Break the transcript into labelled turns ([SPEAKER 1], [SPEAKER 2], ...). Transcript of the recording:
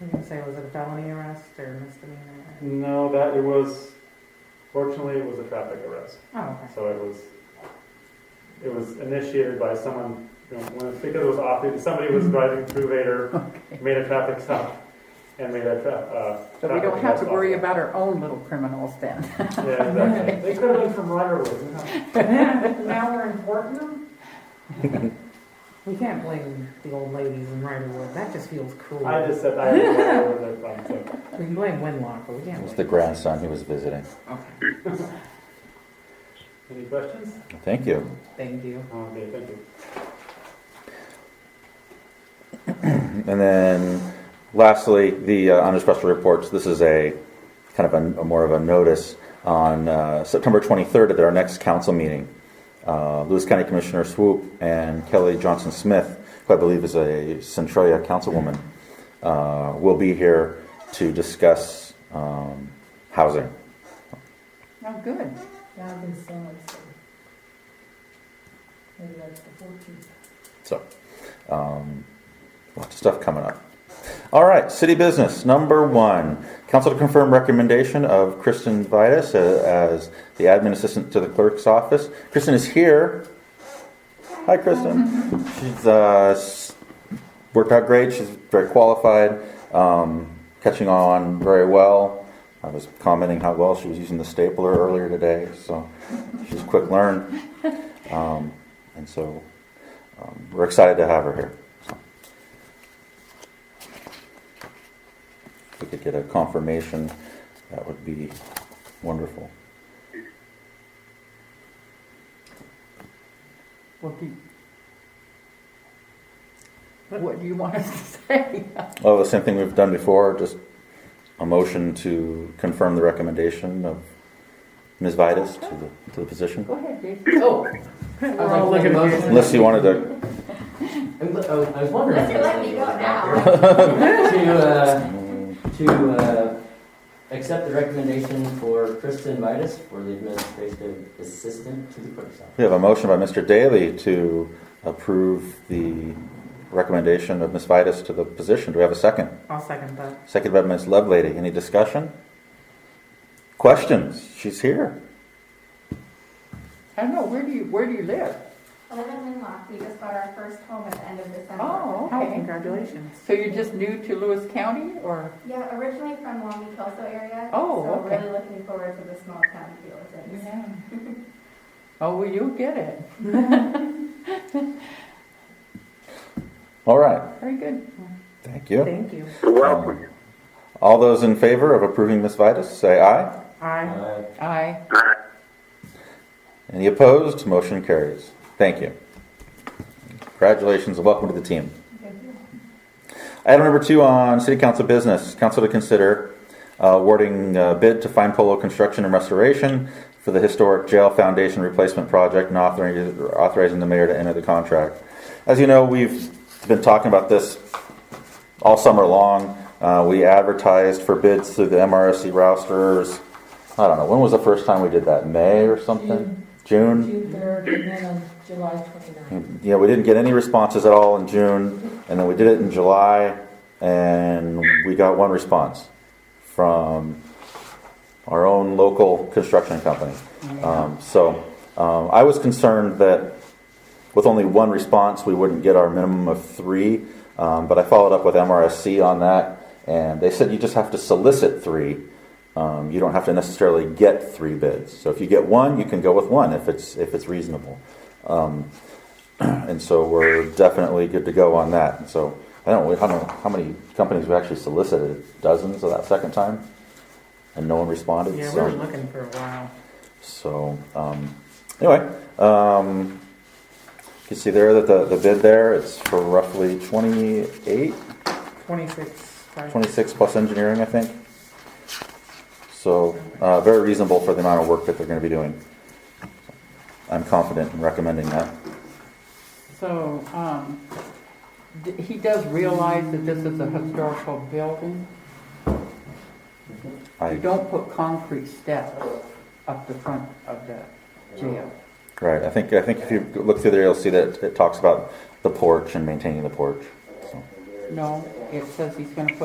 [SPEAKER 1] You can say, was it a felony arrest or misdemeanor?
[SPEAKER 2] No, that it was, fortunately, it was a traffic arrest.
[SPEAKER 3] Mm-hmm.
[SPEAKER 1] Oh, okay.
[SPEAKER 2] So it was, it was initiated by someone, you know, when- because it was off, somebody
[SPEAKER 3] Mm-hmm.
[SPEAKER 2] was driving through Vader, made a traffic stop, and made a tra- uh.
[SPEAKER 3] So we
[SPEAKER 2] traffic
[SPEAKER 3] don't have to
[SPEAKER 2] arrest
[SPEAKER 3] worry
[SPEAKER 2] off
[SPEAKER 3] about our own little criminals then.
[SPEAKER 2] of it. Yeah, exactly. They could have been from Riderwood, huh?
[SPEAKER 1] Now we're importing them? We can't blame the old ladies in Riderwood, that just feels cruel.
[SPEAKER 2] I just said I don't know where they're from, so.
[SPEAKER 1] We can blame Winlock, but we
[SPEAKER 4] It
[SPEAKER 1] can't.
[SPEAKER 4] was the
[SPEAKER 1] blame-
[SPEAKER 4] grandson he was visiting.
[SPEAKER 2] Any questions? Oh,
[SPEAKER 4] Thank you.
[SPEAKER 1] Thank you.
[SPEAKER 2] Okay, thank you.
[SPEAKER 4] And then lastly, the uh, unexpressed reports, this is a kind of a, a more of a notice on uh, September 23rd at our next council meeting. Uh, Lewis County Commissioner Swoop and Kelly Johnson Smith, who I believe is a Centralia councilwoman, uh, will be here to discuss um, housing.
[SPEAKER 3] Oh, good.
[SPEAKER 5] Now I've been saying, let's see. Maybe that's the fourteenth.
[SPEAKER 4] So, um, lots of stuff coming up. All right, city business number one. Council to confirm recommendation of Kristen Vitus uh, as the admin assistant to the clerk's office. Kristen is here. Hi, Kristen. She's uh, s- worked out great. She's very qualified, um, catching on very well. I was commenting how well she was using the stapler earlier today, so she's quick learned. Um, and so um, we're excited to have her here. So. If we could get a confirmation, that would be wonderful.
[SPEAKER 3] What do you, what do you want us to say?
[SPEAKER 4] Oh, the same thing we've done before, just a motion to confirm the recommendation of Ms. Vitus to the, to the position.
[SPEAKER 3] Go ahead, Dave.
[SPEAKER 6] Oh,
[SPEAKER 3] We're all looking at you.
[SPEAKER 4] Unless you wanted to,
[SPEAKER 6] I'm, oh, I was wondering.
[SPEAKER 5] Unless you're letting me go now.
[SPEAKER 6] to uh, to uh, accept the recommendation for Kristen Vitus for the administrative assistant to the clerk's office.
[SPEAKER 4] we have a motion by Mr. Daly to approve the recommendation of Ms. Vitus to the position. Do we have a second?
[SPEAKER 1] I'll second that.
[SPEAKER 4] Second by Ms. Lovelady. Any discussion? Questions? She's here.
[SPEAKER 3] I don't know, where do you, where do you live?
[SPEAKER 5] Eleven Winlock, we just got our first home at the end of December.
[SPEAKER 3] Oh,
[SPEAKER 1] Oh,
[SPEAKER 3] okay.
[SPEAKER 1] congratulations.
[SPEAKER 3] So you're just new to Lewis County or?
[SPEAKER 5] Yeah, originally from Long Beach, Kelso area.
[SPEAKER 3] Oh,
[SPEAKER 5] So
[SPEAKER 3] okay.
[SPEAKER 5] really looking forward to the small town feel of things.
[SPEAKER 3] Oh, well, you'll get it.
[SPEAKER 4] All right.
[SPEAKER 3] Very good.
[SPEAKER 4] Thank you.
[SPEAKER 1] Thank you.
[SPEAKER 4] welcome. All those in favor of approving Ms. Vitus, say aye.
[SPEAKER 1] I,
[SPEAKER 6] Uh,
[SPEAKER 3] Aye.
[SPEAKER 4] Any opposed? Motion carries. Thank you. Congratulations and welcome to the team.
[SPEAKER 5] Thank you.
[SPEAKER 4] Item number two on city council business, council to consider uh, awarding uh, bid to Fine Polo Construction and Restoration for the historic jail foundation replacement project and authorizing, authorizing the mayor to enter the contract. As you know, we've been talking about this all summer long. Uh, we advertised for bids through the MRSC rousters. I don't know, when was the first time we did that? May or something? June?
[SPEAKER 5] June third and then on July twenty-ninth.
[SPEAKER 4] Yeah, we didn't get any responses at all in June, and then we did it in July, and we got one response from our own local construction company. Um, so um, I was concerned that with only one response, we wouldn't get our minimum of three. Um, but I followed up with MRSC on that, and they said you just have to solicit three. Um, you don't have to necessarily get three bids. So if you get one, you can go with one if it's if it's reasonable. Um, and so we're definitely good to go on that. And so I don't know, I don't know how many companies we actually solicited, dozens of that second time, and no one responded.
[SPEAKER 1] yeah, we
[SPEAKER 4] so.
[SPEAKER 1] were looking for a while.
[SPEAKER 4] So, um, anyway, um, you can see there that the, the bid there, it's for roughly 28,
[SPEAKER 1] Twenty-six, five.
[SPEAKER 4] 26 plus engineering, I think. So, uh, very reasonable for the amount of work that they're going to be doing. I'm confident in recommending that.
[SPEAKER 3] So, um, d- he does realize that this is a historical building. You
[SPEAKER 4] I,
[SPEAKER 3] don't put concrete steps up the front of the jail.
[SPEAKER 4] right, I think, I think if you look through there, you'll see that it talks about the porch and maintaining the porch, so.
[SPEAKER 3] No, it says he's gonna put